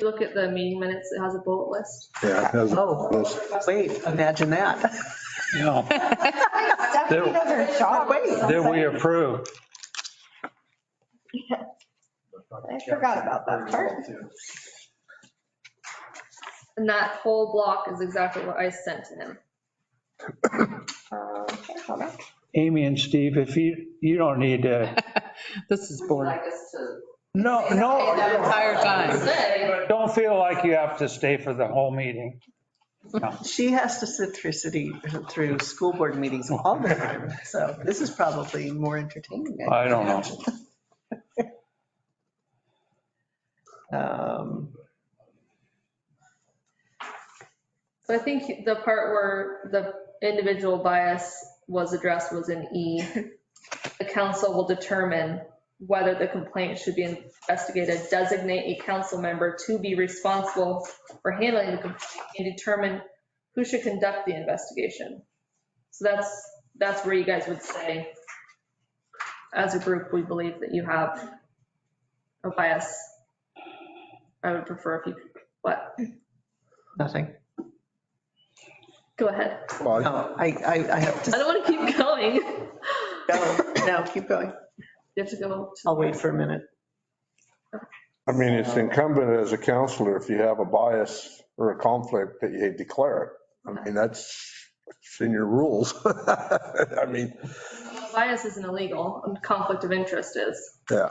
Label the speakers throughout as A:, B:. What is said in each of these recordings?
A: you look at the meeting minutes, it has a bullet list.
B: Yeah. it has a
C: Oh.
B: list.
C: Wait, imagine that.
D: Yeah,
E: Stephanie doesn't shop.
D: that we approved.
E: I forgot about that part.
A: And that whole block is exactly what I sent to him.
E: Okay, hold on.
D: Amy and Steve, if you, you don't need to,
F: This is boring.
D: no, no,
F: The entire time.
A: Say,
D: don't feel like you have to stay for the whole meeting.
C: She has to sit through city, through school board meetings all the time, so this is probably more entertaining.
D: I don't know.
C: Um,
A: So I think the part where the individual bias was addressed was in E. The council will determine whether the complaint should be investigated, designate a council member to be responsible for handling the complaint, and determine who should conduct the investigation. So that's, that's where you guys would say, as a group, we believe that you have a bias. I would prefer if you, what,
C: Nothing.
A: go ahead.
B: Well,
C: No, I, I, I have
A: I
C: to
A: don't want to keep going.
C: go. No, keep going.
A: You have to go. to-
C: I'll wait for a minute.
B: I mean, it's incumbent as a counselor, if you have a bias or a conflict, that you declare it. I mean, that's it's in your rules. I mean,
A: Bias isn't illegal, and conflict of interest is.
B: yeah.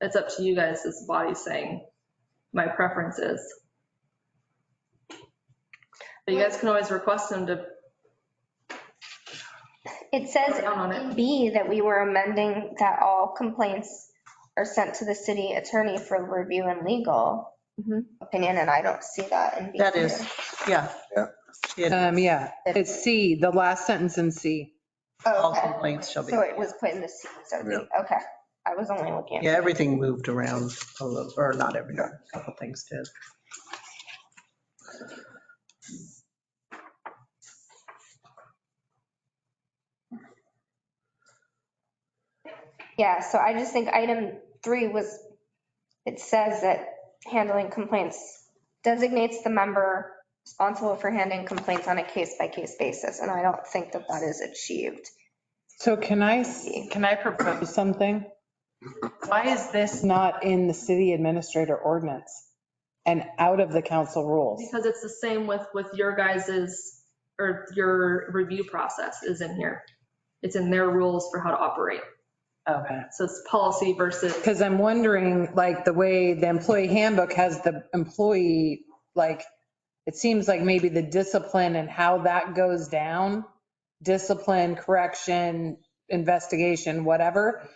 A: It's up to you guys as a body saying, my preference is. But you guys can always request them to,
E: It says
A: Down on it.
E: in B that we were amending that all complaints are sent to the city attorney for review and legal
A: Mhm.
E: opinion, and I don't see that in B.
C: That is, yeah.
B: Yeah.
C: It-
F: Um, yeah, it's C, the last sentence in C.
E: Oh,
C: All
E: Okay,
C: complaints shall be,
E: so it was put in the C, so B, okay. I was only looking at.
C: yeah, everything moved around a little, or not everything, a couple things did.
E: Yeah, so I just think item three was, it says that handling complaints designates the member responsible for handling complaints on a case-by-case basis, and I don't think that that is achieved.
F: So can I, s- can I propose something? Why is this not in the city administrator ordinance and out of the council rules?
A: because it's the same with, with your guys's, or your review process is in here. It's in their rules for how to operate.
F: Okay.
A: So it's policy versus,
F: Because I'm wondering, like, the way the employee handbook has the employee, like, it seems like maybe the discipline and how that goes down, discipline, correction, investigation, whatever.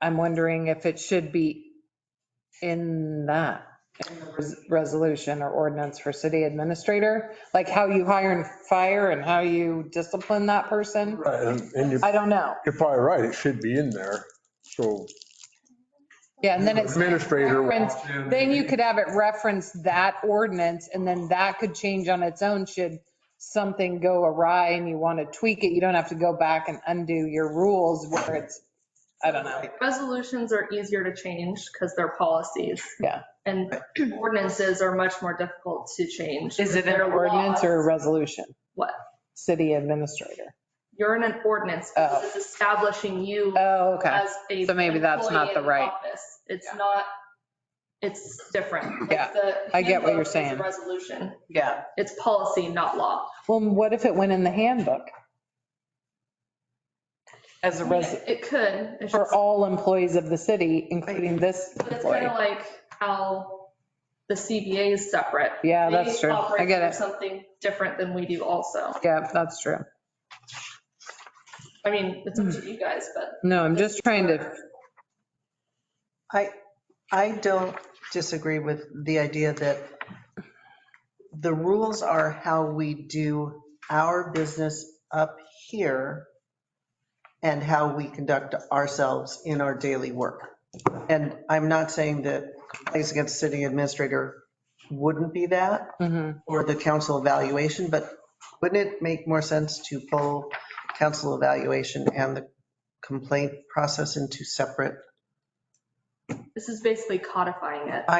F: I'm wondering if it should be in that in the res- resolution or ordinance for city administrator, like how you hire and fire and how you discipline that person.
B: Right, And and you're
F: I don't know.
B: you're probably right. It should be in there. So
F: Yeah, and then it's.
B: administrator.
F: reference-
B: walks in.
F: Then you could have it reference that ordinance and then that could change on its own should something go awry and you want to tweak it. You don't have to go back and undo your rules where it's, I don't know.
A: resolutions are easier to change because they're policies.
F: Yeah.
A: And ordinances are much more difficult to change.
F: Is it an
A: They're
F: ordinance or a
A: laws.
F: resolution?
A: What?
F: City administrator.
A: You're in an ordinance because
F: Oh.
A: it's establishing you
F: Oh, okay.
A: as a.
F: So maybe that's not
A: employee
F: the
A: in
F: right-
A: office. It's not, it's different. Like,
F: Yeah,
A: the
F: I get what you're
A: handbook is a
F: saying.
A: Resolution.
C: Yeah,
A: It's policy, not law.
F: Well, what if it went in the handbook? As a res,
A: It could. It's
F: for
A: just-
F: all employees of the city, including this
A: But it's kind
F: employee.
A: of like how the CBA is separate.
F: Yeah,
A: They
F: that's true. I
A: operate
F: get
A: through
F: it.
A: Something different than we do also.
F: Yeah, that's true.
A: I mean, it's up to you guys, but.
F: No, I'm just trying to
C: I, I don't disagree with the idea that the rules are how we do our business up here and how we conduct ourselves in our daily work. And I'm not saying that complaints against city administrator wouldn't be that
F: Mhm.
C: or the council evaluation, but wouldn't it make more sense to pull council evaluation and the complaint process into separate
A: This is basically codifying it.